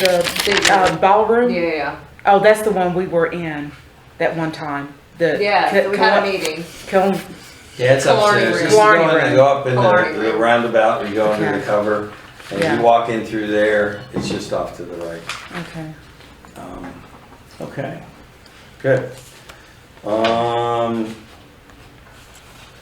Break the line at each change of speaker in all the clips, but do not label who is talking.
the
Yeah,
uh, ballroom?
yeah,
Oh, that's the one we were in that one time. The
yeah, so we had a meeting.
Kiln,
Yeah, it's
Killarney
upstairs.
Room.
It's going
Killarney
to go up in
Killarney
the, the
Room.
roundabout, and you go under
Okay.
the cover, and
Yeah.
you walk in through there, it's just off to the right.
okay.
Um, Okay, good. Um,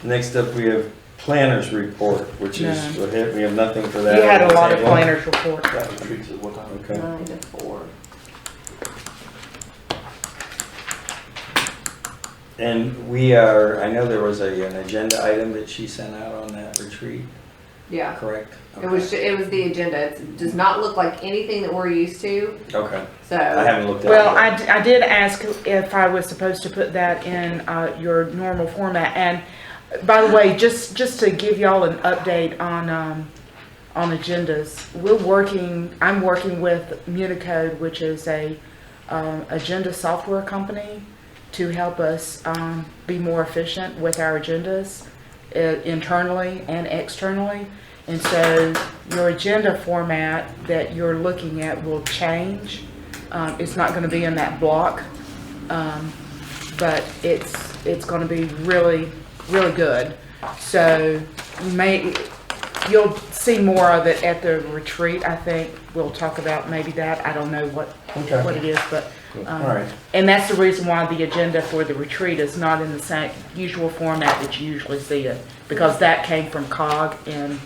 next up, we have planners report, which is, we have we have nothing for that.
You had a lot of
Table.
planners report.
Okay.
Nine to four.
And we are, I know there was a, an agenda item that she sent out on that retreat,
Yeah,
correct?
it was, ju- it was the agenda. It does not look like anything that we're used to,
Okay, I
so.
haven't looked at it.
Well,
yet.
I, d- I did ask if I was supposed to put that in uh, your normal format. And by the way, just, just to give y'all an update on, um, on agendas, we're working, I'm working with Municode, which is a um, agenda software company, to help us um, be more efficient with our agendas uh, internally and externally. And so your agenda format that you're looking at will change. Um, It's not going to be in that block, um, but it's, it's going to be really, really good. So you may, you'll see more of it at the retreat, I think. We'll talk about maybe that. I don't know what,
Okay.
what it is, but. um,
All right.
and that's the reason why the agenda for the retreat is not in the same usual format that you usually see it, because that came from COG, and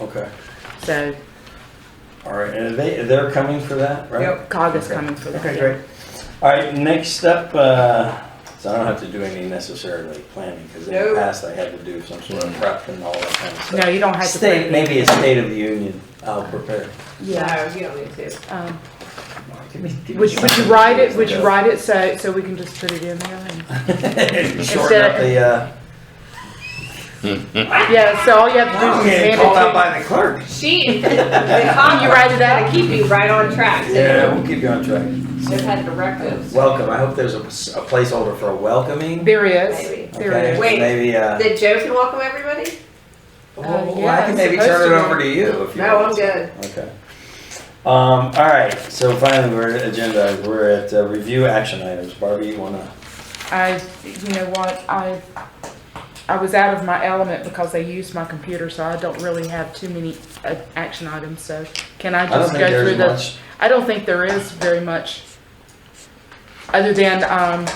Okay,
so
all right, and they, they're coming for that, right?
COG is
Okay.
coming for that.
Okay, great. All right, next up, uh, so I don't have to do any necessarily planning, because in the
Nope.
past I had to do some sort of prep and all that kind of
No,
stuff.
you don't have to. put
State,
it in.
maybe a State of the Union, I'll prepare.
Yeah.
No, you don't need to.
Um,
Give me- give me
Would, would you
something
write
to
it,
do.
would you write it so, so we can just put it in there? and-
Shorten up the, uh,
Yeah, so all you have to do
I'm
is
getting
hand
called out
it
by the clerk.
She, the copy right to keep you right on track. so
Yeah, we'll keep you on track.
Just had directives.
Welcome, I hope there's a a placeholder for
to,
a welcoming.
there is,
Maybe.
there
Okay,
is.
Wait.
Maybe, uh,
Did Joe can welcome everybody?
Oh, well,
Uh, yeah,
I can
it's
maybe
supposed
turn it
to.
over to you if you
No,
want
I'm
to.
good.
Okay. Um, all right, so finally, we're at agenda, we're at uh, review action items. Barbie, you wanna?
I, you know what, I, I was out of my element because they used my computer, so I don't really have too many uh, action items, so can I
I don't
just go
think
through
there's
the?
much.
I don't think there is very much, other than, um,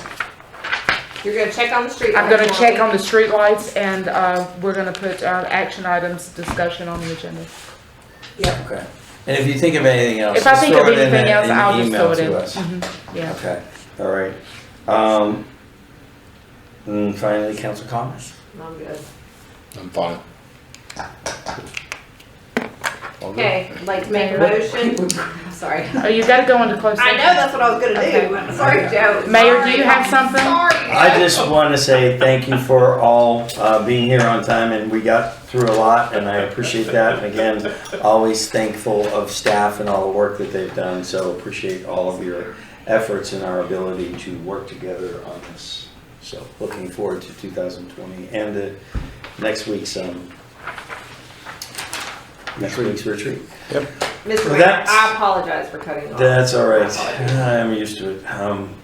You're gonna check on the street.
I'm
lights
gonna
for
check
me.
on the streetlights and, uh, we're gonna put, uh, action items discussion on the agenda.
Okay. And if you think of anything else,
If I
just
think of
throw Oh, it in
anything
a-
else,
an
I'll just
email
throw it in.
to us.
Mhm, Yeah.
Okay, all right. Um, and finally, council comments.
I'm good.
I'm fine. All good.
Okay, I'd like to make a
What-
motion. I'm sorry.
Oh, you gotta go into close.
I know that's what I was gonna do.
Okay.
I'm Sorry, Joe.
Mayor, do you
Sorry.
have something?
Sorry.
I
Joe.
just want to say thank you for all uh, being here on time, and we got through a lot, and I appreciate that. And again, always thankful of staff and all the work that they've done, so appreciate all of your efforts and our ability to work together on this. So looking forward to 2020 and the next week's, um, next week's retreat.
Mr.
Well,
Mayor,
that's-
I apologize for cutting you off.
That's all right.
I apologize.
I'm used to it. Um,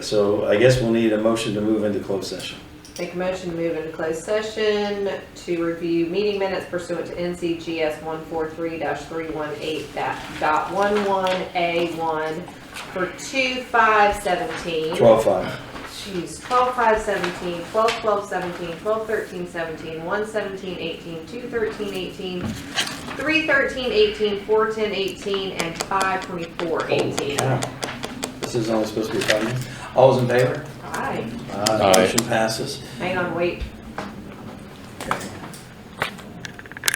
So I guess we'll need a motion to move into closed session.
Make a motion to move into closed session to review meeting minutes pursuant to NCGS one four three three one eight dot one one A one for two five seventeen.
12:05.
Jeez, twelve five seventeen, twelve twelve seventeen, twelve thirteen seventeen, one seventeen eighteen, two thirteen eighteen, three thirteen eighteen, four ten eighteen, and five twenty-four eighteen.
Oh, Yeah. This is only supposed to be five minutes. All's in favor?
Aye,
Motion passes.
hang on, wait,